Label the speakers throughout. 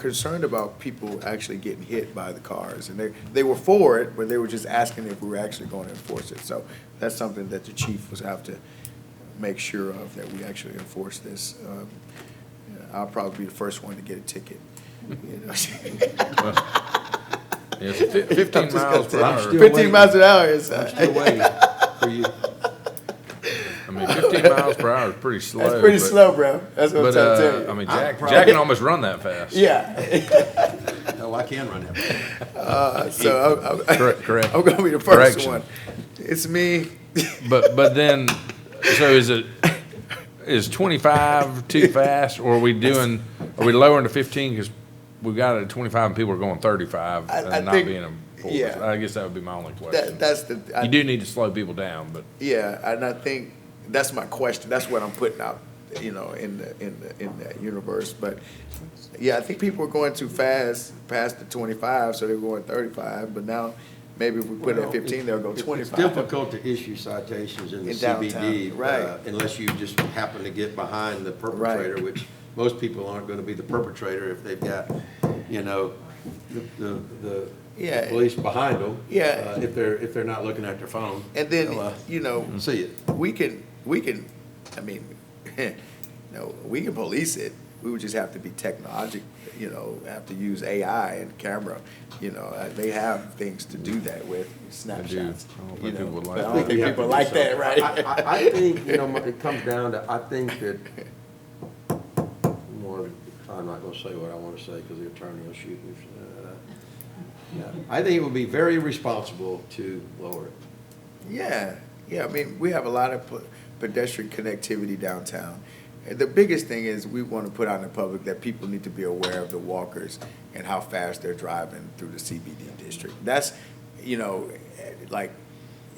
Speaker 1: concerned about people actually getting hit by the cars, and they, they were for it, but they were just asking if we were actually going to enforce it. So that's something that the chief was have to make sure of, that we actually enforce this. Um, I'll probably be the first one to get a ticket. you know.
Speaker 2: Yes, fif- fifteen miles per
Speaker 3: I'm
Speaker 2: hour,
Speaker 3: still-
Speaker 1: Fifteen miles an hour is,
Speaker 3: I'm
Speaker 1: uh,
Speaker 3: still waiting for you.
Speaker 2: I mean, fifteen miles per hour is pretty slow.
Speaker 1: that's pretty
Speaker 2: but-
Speaker 1: slow, bro. That's what I'm
Speaker 2: But,
Speaker 1: trying to
Speaker 2: uh,
Speaker 1: tell
Speaker 2: I
Speaker 1: you.
Speaker 2: mean, Jack,
Speaker 3: probably-
Speaker 2: Jack can almost run that fast.
Speaker 1: Yeah,
Speaker 3: Oh, I can run that.
Speaker 1: uh, so I'm- I'm,
Speaker 2: Correct, correct.
Speaker 1: I'm gonna be the first
Speaker 2: Correction.
Speaker 1: one. It's me.
Speaker 2: But, but then, so is it, is twenty-five too fast, or are we doing, are we lowering to fifteen? Because we got it at twenty-five and people are going thirty-five
Speaker 1: I- I
Speaker 2: and not
Speaker 1: think-
Speaker 2: being enforced.
Speaker 1: yeah.
Speaker 2: I guess that would be my only
Speaker 1: That,
Speaker 2: question.
Speaker 1: that's the. I-
Speaker 2: You do need to slow people down, but
Speaker 1: Yeah, and I think that's my question. That's what I'm putting out, you know, in the, in the, in that universe. But yeah, I think people are going too fast past the twenty-five, so they were going thirty-five. But now maybe if we put it at
Speaker 3: Well,
Speaker 1: fifteen, they'll go
Speaker 3: it's-
Speaker 1: twenty-five.
Speaker 3: It's difficult to issue citations in the
Speaker 1: In downtown,
Speaker 3: CBD.
Speaker 1: right.
Speaker 3: uh, Unless you just happen to get behind the perpetrator, which most people aren't going to be the perpetrator if they've got, you know, the- the, the
Speaker 1: Yeah.
Speaker 3: the police behind them. uh,
Speaker 1: Yeah.
Speaker 3: If they're, if they're not looking at their phone.
Speaker 1: And
Speaker 3: they'll, uh,
Speaker 1: then you know,
Speaker 3: See it.
Speaker 1: we can we can, I mean, no, we can police it. We would just have to be technologic, you know, have to use AI and camera. You know, uh, they have things to do that with snapshots.
Speaker 2: I don't
Speaker 1: you
Speaker 2: think
Speaker 1: know,
Speaker 2: people would like
Speaker 1: but I
Speaker 2: that.
Speaker 1: don't think
Speaker 3: we have
Speaker 1: people
Speaker 3: to do
Speaker 1: like that,
Speaker 3: something.
Speaker 1: right?
Speaker 3: I, I, I think, you know, it comes down to, I think that, more, I'm not gonna say what I wanna say, because the attorney will shoot me. uh, yeah. I think it would be very responsible to lower it.
Speaker 1: Yeah, yeah, I mean, we have a lot of pe- pedestrian connectivity downtown. And The biggest thing is we want to put out in the public that people need to be aware of the walkers and how fast they're driving through the CBD district. That's, you know, eh, like,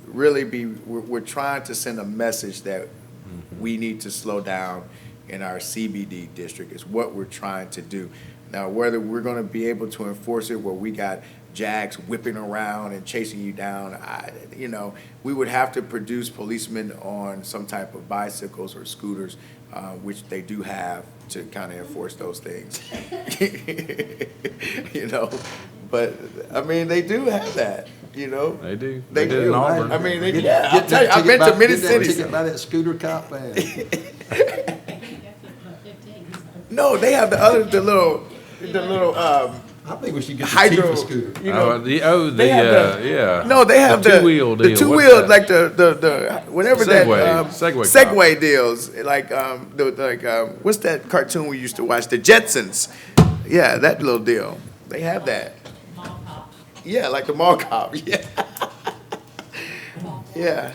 Speaker 1: really be, we're, we're trying to send a message that we need to slow down in our CBD district is what we're trying to do. Now, whether we're gonna be able to enforce it where we got jacks whipping around and chasing you down, I, you know, we would have to produce policemen on some type of bicycles or scooters, uh, which they do have to kind of enforce those things. You know, but, I mean, they do have that, you know?
Speaker 2: they do.
Speaker 1: They
Speaker 2: did in
Speaker 1: do.
Speaker 2: Auburn.
Speaker 1: I mean, they,
Speaker 3: Get-
Speaker 1: yeah, I'll
Speaker 3: get
Speaker 1: tell you,
Speaker 3: that
Speaker 1: I've
Speaker 3: ticket
Speaker 1: been to
Speaker 3: by-
Speaker 1: many
Speaker 3: get that
Speaker 1: cities.
Speaker 3: Ticket by that scooter cop man.
Speaker 1: No, they have the other, the little, the little, um,
Speaker 3: I think we should get the chief
Speaker 1: hydro,
Speaker 3: a scooter.
Speaker 1: you
Speaker 2: Oh,
Speaker 1: know.
Speaker 2: the, oh, the,
Speaker 1: they have
Speaker 2: uh, yeah.
Speaker 1: No, they have the.
Speaker 2: two-wheel deal.
Speaker 1: The
Speaker 2: What's
Speaker 1: two-wheel,
Speaker 2: that?
Speaker 1: like the, the, the, whatever that.
Speaker 2: Segway.
Speaker 1: um,
Speaker 2: Segway cop.
Speaker 1: Segway deals, like, um, the, like, um, what's that cartoon we used to watch, the Jetsons? Yeah, that little deal. They have that. Yeah, like the mall cop, yeah. Yeah.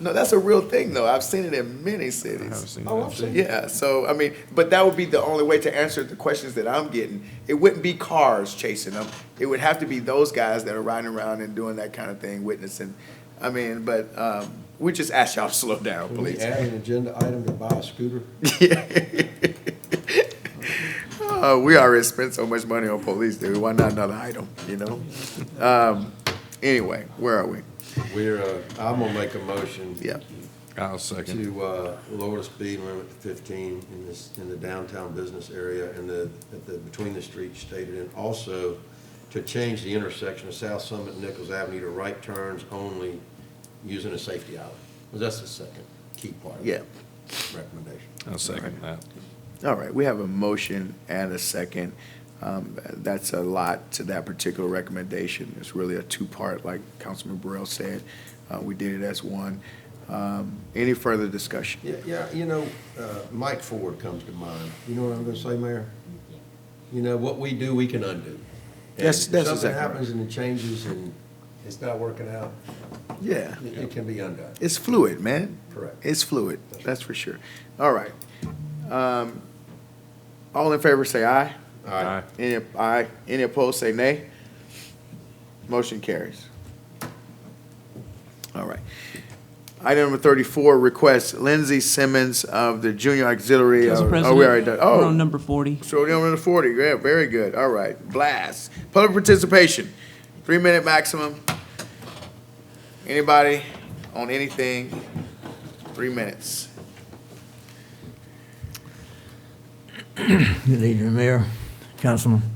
Speaker 1: No, that's a real thing, though. I've seen it in many
Speaker 2: I haven't
Speaker 1: cities.
Speaker 2: seen
Speaker 3: Oh,
Speaker 2: that.
Speaker 3: I've seen it.
Speaker 1: Yeah, so, I mean, but that would be the only way to answer the questions that I'm getting. It wouldn't be cars chasing them. It would have to be those guys that are riding around and doing that kind of thing, witnessing. I mean, but, um, we just ask y'all to slow down,
Speaker 3: Can we
Speaker 1: please.
Speaker 3: add an agenda item to buy a scooter?
Speaker 1: Uh, we already spent so much money on police, dude. Why not another item, you know? Um, anyway, where are we?
Speaker 3: We're, uh, I'm gonna make a motion.
Speaker 1: Yeah.
Speaker 2: I'll second.
Speaker 3: to uh, lower the speed limit to 15 in this, in the downtown business area and the, at the, between the streets stated, and also to change the intersection of South Summit and Nichols Avenue to right turns only using a safety island. Well, that's the second key part of
Speaker 1: Yeah.
Speaker 3: the recommendation.
Speaker 2: I'll second that.
Speaker 1: All right, we have a motion and a second. Um, That's a lot to that particular recommendation. It's really a two-part, like Councilman Burrell said. Uh, We did it as one. Um, Any further discussion?
Speaker 3: Yeah, yeah, you know, uh, Mike Ford comes to mind. You know what I'm gonna say, Mayor? You know, what we do, we can undo. And
Speaker 1: Yes, that's exactly
Speaker 3: If something
Speaker 1: right.
Speaker 3: happens and it changes and it's not working out,
Speaker 1: Yeah.
Speaker 3: it- it can be undone.
Speaker 1: It's fluid, man.
Speaker 3: Correct.
Speaker 1: It's fluid, that's for sure. All right. Um, All in favor, say aye.
Speaker 3: All right.
Speaker 1: Any, aye. Any opposed, say nay. Motion carries. All right. Item number thirty-four, request Lindsey Simmons of the Junior Auxiliary.
Speaker 4: Council
Speaker 1: oh,
Speaker 4: President,
Speaker 1: we already done-
Speaker 4: we're on
Speaker 1: Oh,
Speaker 4: number 40.
Speaker 1: so we're on number forty, yeah, very good, all right, blast. Public participation, three-minute maximum. Anybody on anything, three minutes.
Speaker 5: Good evening, Mayor, Councilman.